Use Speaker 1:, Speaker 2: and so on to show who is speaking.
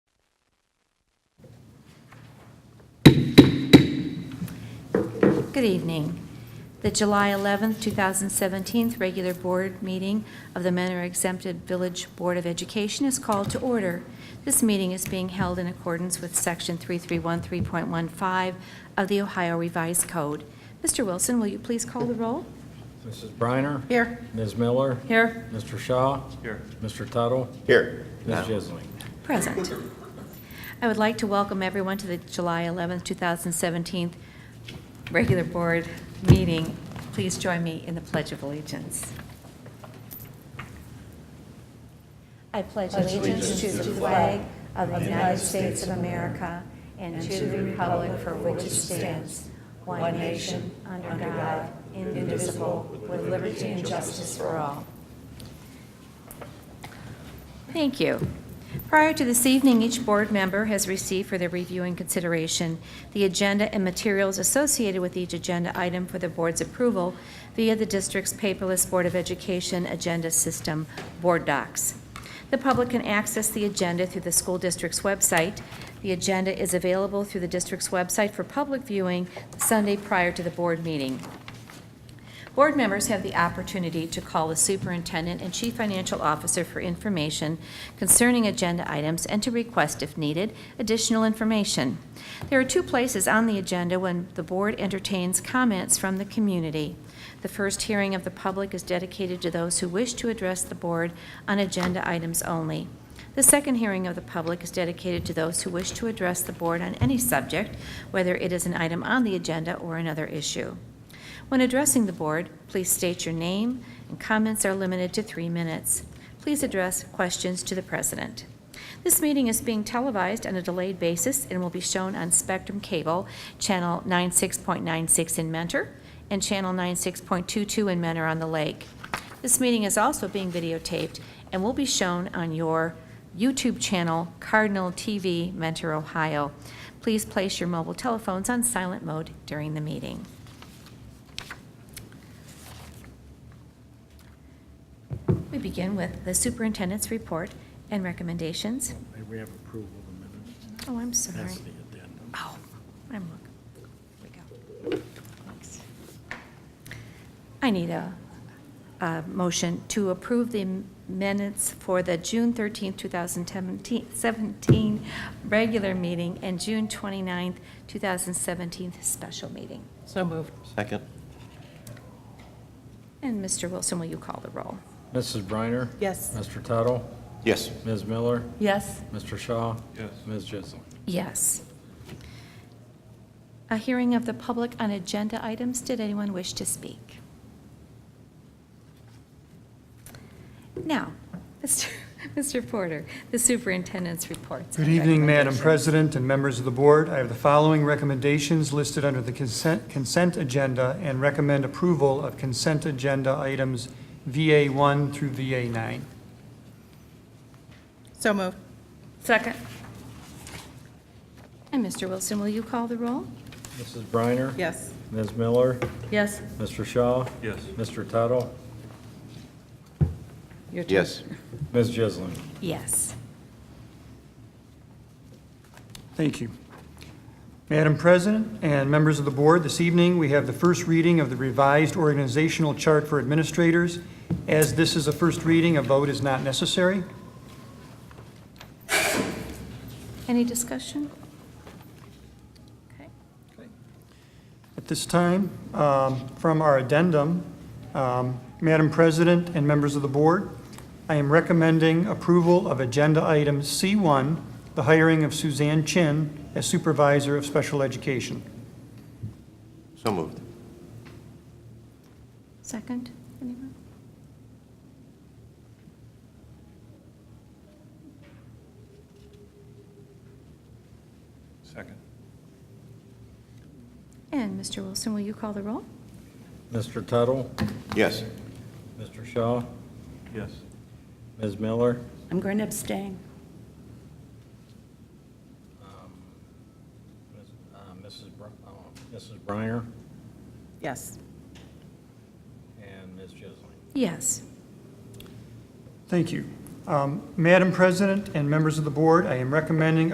Speaker 1: Good evening. The July 11th, 2017 regular board meeting of the Mentor Exempted Village Board of Education is called to order. This meeting is being held in accordance with Section 3313.15 of the Ohio Revised Code. Mr. Wilson, will you please call the roll?
Speaker 2: Mrs. Briner?
Speaker 1: Here.
Speaker 2: Ms. Miller?
Speaker 1: Here.
Speaker 2: Mr. Shaw?
Speaker 3: Here.
Speaker 2: Mr. Tuttle?
Speaker 3: Here.
Speaker 2: Ms. Jisling?
Speaker 1: Present. I would like to welcome everyone to the July 11th, 2017 regular board meeting. Please join me in the Pledge of Allegiance. I pledge allegiance to the flag of the United States of America and to the republic for which it stands, one nation, under God, indivisible, with liberty and justice for all. Thank you. Prior to this evening, each board member has received for their review and consideration the agenda and materials associated with each agenda item for the board's approval via the district's paperless Board of Education Agenda System, Board Docs. The public can access the agenda through the school district's website. The agenda is available through the district's website for public viewing Sunday prior to the board meeting. Board members have the opportunity to call the superintendent and chief financial officer for information concerning agenda items and to request, if needed, additional information. There are two places on the agenda when the board entertains comments from the community. The first hearing of the public is dedicated to those who wish to address the board on agenda items only. The second hearing of the public is dedicated to those who wish to address the board on any subject, whether it is an item on the agenda or another issue. When addressing the board, please state your name, and comments are limited to three minutes. Please address questions to the president. This meeting is being televised on a delayed basis and will be shown on Spectrum Cable, Channel 96.96 in Mentor and Channel 96.22 in Mentor on the Lake. This meeting is also being videotaped and will be shown on your YouTube channel, Cardinal TV Mentor, Ohio. Please place your mobile telephones on silent mode during the meeting. We begin with the superintendent's report and recommendations.
Speaker 2: May we have approval of the minutes?
Speaker 1: Oh, I'm sorry.
Speaker 2: That's the addendum.
Speaker 1: Oh, I'm, look- here we go. Thanks. I need a, a motion to approve the minutes for the June 13th, 2017, 17 regular meeting and June 29th, 2017 special meeting.
Speaker 4: So moved.
Speaker 3: Second.
Speaker 1: And Mr. Wilson, will you call the roll?
Speaker 2: Mrs. Briner?
Speaker 4: Yes.
Speaker 2: Mr. Tuttle?
Speaker 3: Yes.
Speaker 2: Ms. Miller?
Speaker 4: Yes.
Speaker 2: Mr. Shaw?
Speaker 3: Yes.
Speaker 2: Ms. Jisling?
Speaker 1: Yes. A hearing of the public on agenda items. Did anyone wish to speak? Now, Mr. Mr. Porter, the superintendent's reports.
Speaker 5: Good
Speaker 1: and
Speaker 5: evening, Madam
Speaker 1: recommendations.
Speaker 5: President and members of the board. I have the following recommendations listed under the consent, consent agenda and recommend approval of consent agenda items VA1 through VA9.
Speaker 4: So moved.
Speaker 1: Second. And Mr. Wilson, will you call the roll?
Speaker 2: Mrs. Briner?
Speaker 4: Yes.
Speaker 2: Ms. Miller?
Speaker 4: Yes.
Speaker 2: Mr. Shaw?
Speaker 3: Yes.
Speaker 2: Mr. Tuttle?
Speaker 4: Your turn.
Speaker 3: Yes.
Speaker 2: Ms. Jisling?
Speaker 1: Yes.
Speaker 5: Thank you. Madam President and members of the board, this evening, we have the first reading of the revised organizational chart for administrators. As this is a first reading, a vote is not necessary.
Speaker 1: Any discussion? Okay.
Speaker 5: At this time, um, from our addendum, um, Madam President and members of the board, I am recommending approval of Agenda Item C1, the hiring of Suzanne Chin as Supervisor of Special Education.
Speaker 3: So moved.
Speaker 1: Second, anyone?
Speaker 3: Second.
Speaker 1: And Mr. Wilson, will you call the roll?
Speaker 2: Mr. Tuttle?
Speaker 3: Yes.
Speaker 2: Mr. Shaw?
Speaker 3: Yes.
Speaker 2: Ms. Miller?
Speaker 6: I'm going to abstain.
Speaker 2: Ms. Um, uh, Mrs. Br- uh, Mrs. Briner?
Speaker 4: Yes.
Speaker 2: And Ms. Jisling?
Speaker 1: Yes.
Speaker 5: Thank you. Um, Madam President and members of the board, I am recommending